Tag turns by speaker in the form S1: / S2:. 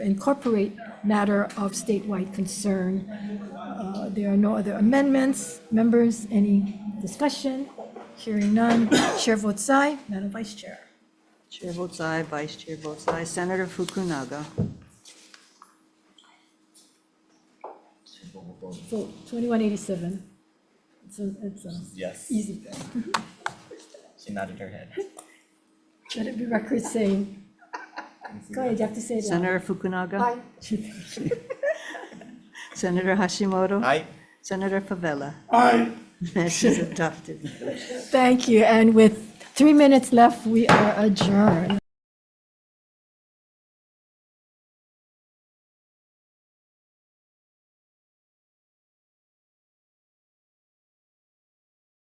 S1: incorporate matter of statewide concern. Uh, There are no other amendments. Members, any discussion? Hearing none. Chair votes aye. Madam Vice Chair.
S2: Chair votes aye, Vice Chair votes aye. Senator Fukunaga.
S1: Vote 2187. It's a, it's a
S3: Yes,
S1: easy thing.
S3: she nodded her head.
S1: Let it be record saying. Go ahead, you have to say it loud.
S2: Senator Fukunaga.
S1: Aye.
S2: Senator Hashimoto.
S3: Aye.
S2: Senator Favela. Aye. Message adopted.
S1: Thank you. And with three minutes left, we are adjourned.